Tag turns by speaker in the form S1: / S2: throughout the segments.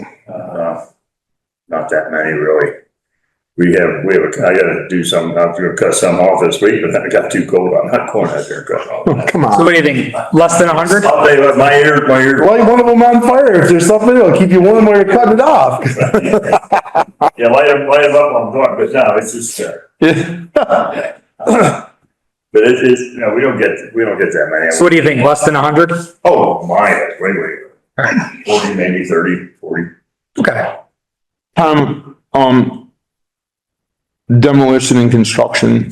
S1: Uh, not that many really. We have, we have, a- I gotta do some, I'm gonna cut some off this week, but then it got too cold. I'm not going out there and cutting off.
S2: Oh, come
S3: So
S2: on.
S3: what do you think? Less than a hundred?
S1: I'll tell you what, my ear, my ear,
S2: Light one of them on fire. If there's something, it'll keep you warm while you're cutting it off.
S1: yeah, light them, light them up, I'm going, but no, it's just, uh, but it's, it's, you know, we don't get, we don't get that many.
S3: So what do you think? Less than a hundred?
S1: Oh, my, that's way, way, forty, maybe thirty, forty.
S3: Okay.
S4: Tom, um, demolition and construction,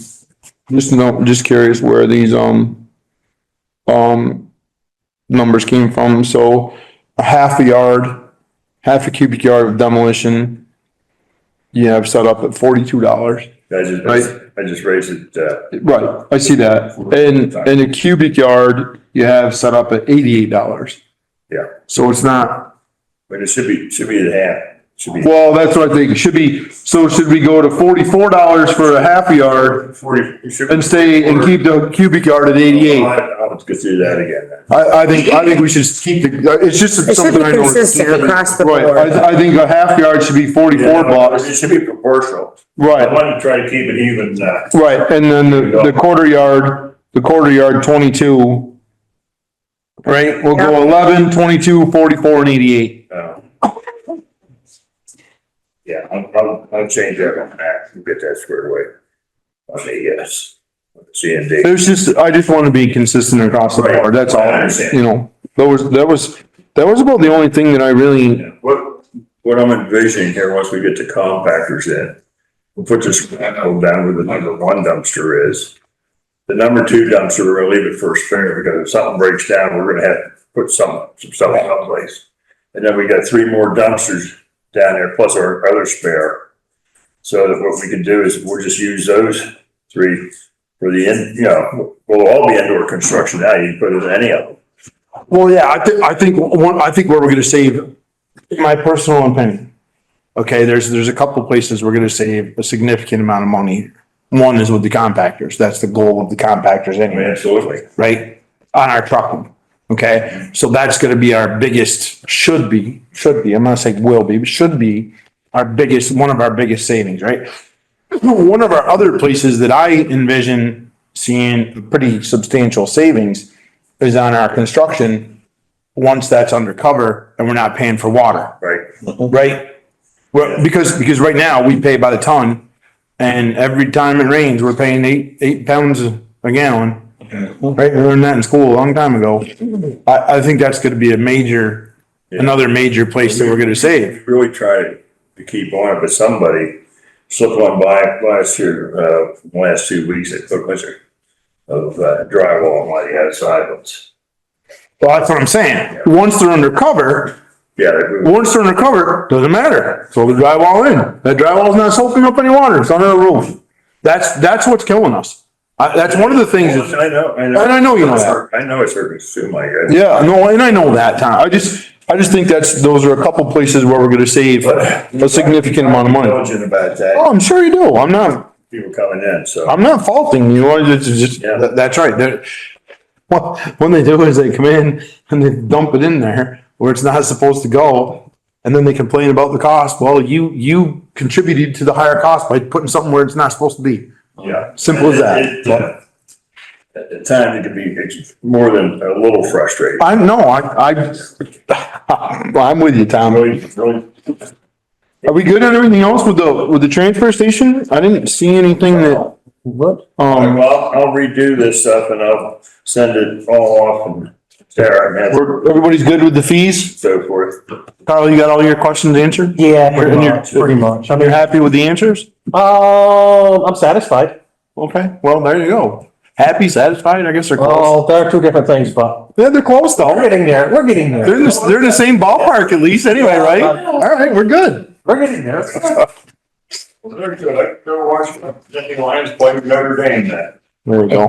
S4: just no, just curious where these, um, um, numbers came from. So a half a yard, half a cubic yard of demolition, you have set up at forty-two dollars.
S1: I just,
S4: Right.
S1: I just raised it, uh,
S4: Right, I see that. And, and a cubic yard, you have set up at eighty-eight dollars.
S1: Yeah.
S4: So it's not
S1: but it should be, should be the half, should be
S4: Well, that's what I think. It should be, so should we go to forty-four dollars for a half a yard
S1: forty, it should be.
S4: and stay and keep the cubic yard at eighty-eight?
S1: I'll I'll go through that again then.
S4: I, I think, I think we should keep the, it's just
S5: It should
S4: something
S5: be
S4: I know.
S5: consistent across the
S4: Right,
S5: board.
S4: I, I think a half yard should be forty-four bucks.
S1: It should be proportional. I
S4: Right,
S1: wanted to try to keep it even, uh,
S4: right. And then the, the quarter yard, the quarter yard twenty-two. Right, we'll go eleven, twenty-two, forty-four and eighty-eight.
S1: uh. Yeah, I'll, I'll, I'll change that on that, and get that squared away. On the, yes, C and D.
S4: It was just, I just want to be consistent across the board. That's
S1: I
S4: all,
S1: understand.
S4: you know. That was, that was, that was about the only thing that I really
S1: What, what I'm envisioning here, once we get the compactors in, we'll put this manhole down where the number one dumpster is. The number two dumpster, we're gonna leave it first finger, because if something breaks down, we're gonna have to put some, some stuff someplace. And then we got three more dumpsters down there, plus our other spare. So that what we can do is we'll just use those three for the in, you know, we'll all be indoor construction now, you can put it in any of them.
S4: Well, yeah, I think, I think, one, I think where we're gonna save, in my personal opinion. Okay, there's, there's a couple places we're gonna save a significant amount of money. One is with the compactors. That's the goal of the compactors
S1: I mean,
S4: anyway,
S1: absolutely.
S4: right? On our trucking, okay? So that's gonna be our biggest, should be, should be, I'm not saying will be, but should be our biggest, one of our biggest savings, right? One of our other places that I envision seeing pretty substantial savings is on our construction, once that's undercover and we're not paying for water,
S1: Right,
S4: right? Well, because, because right now we pay by the ton and every time it rains, we're paying eight, eight pounds a gallon. Right, we learned that in school a long time ago. I, I think that's gonna be a major, another major place that we're gonna save.
S1: really try to keep on it, but somebody slipped one by last year, uh, last two weeks, they put a bunch of- of uh, drywall on one of the outside ones.
S4: Well, that's what I'm saying. Once they're undercover,
S1: Yeah, they-
S4: Once they're undercover, doesn't matter. Throw the drywall in. That drywall's not soaking up any water. It's under the roof. That's, that's what's killing us. I, that's one of the things. that's-
S1: I know, I know.
S4: And I know you know that.
S1: I know it's hurting too, my guy.
S4: Yeah, no, and I know that, Tom. I just, I just think that's, those are a couple places where we're gonna save a significant amount of money.
S1: Intelligent about that,
S4: Oh, I'm sure you do. I'm not,
S1: people coming in, so,
S4: I'm not faulting you. I just, just,
S1: Yeah.
S4: that- that's right. They're- What, when they do is they come in and they dump it in there where it's not supposed to go. And then they complain about the cost. Well, you, you contributed to the higher cost by putting something where it's not supposed to be.
S1: yeah.
S4: Simple as that.
S1: It- it- At the time, it could be it's more than a little frustrating.
S4: I know, I, I, I'm with you, Tom.
S1: Really, really,
S4: Are we good on everything else with the, with the transfer station? I didn't see anything that,
S2: What?
S4: um,
S1: well, I'll redo this stuff and I'll send it all off and Sarah and
S4: we're- everybody's good with the fees?
S1: so forth.
S4: Carl, you got all your questions answered?
S2: Yeah,
S4: Pretty
S2: pretty much,
S4: much, pretty
S2: I
S4: You're
S2: mean,
S4: happy with the answers?
S2: um, I'm satisfied.
S4: Okay, well, there you go. Happy, satisfied, I guess they're close.
S2: Well, there are two different things, but
S4: Yeah, they're close
S2: we're
S4: though.
S2: getting there. We're getting
S4: They're
S2: there.
S4: in the, they're in the same ballpark at least anyway, right? All right, we're good.
S2: We're getting there.
S1: Well, they're good. I never watched the Lions play Notre Dame then.
S4: There we go.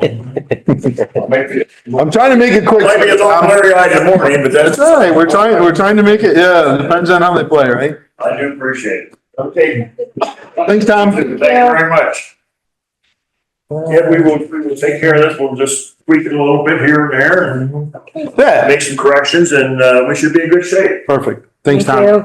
S1: Maybe,
S4: I'm trying to make it quick.
S1: maybe it's all
S4: It's
S1: blurry eyed in the morning, but that's.
S4: all right, we're trying, we're trying to make it, yeah, depends on how they play, right?
S1: I do appreciate it. Okay. Thank
S4: Thanks, Tom.
S1: you very much. Yeah, we will, we will take care of this. We'll just tweak it a little bit here and there and
S4: Yeah,
S1: make some corrections and, uh, we should be in good shape.
S4: perfect. Thanks,
S5: Thank
S4: Tom.
S5: you.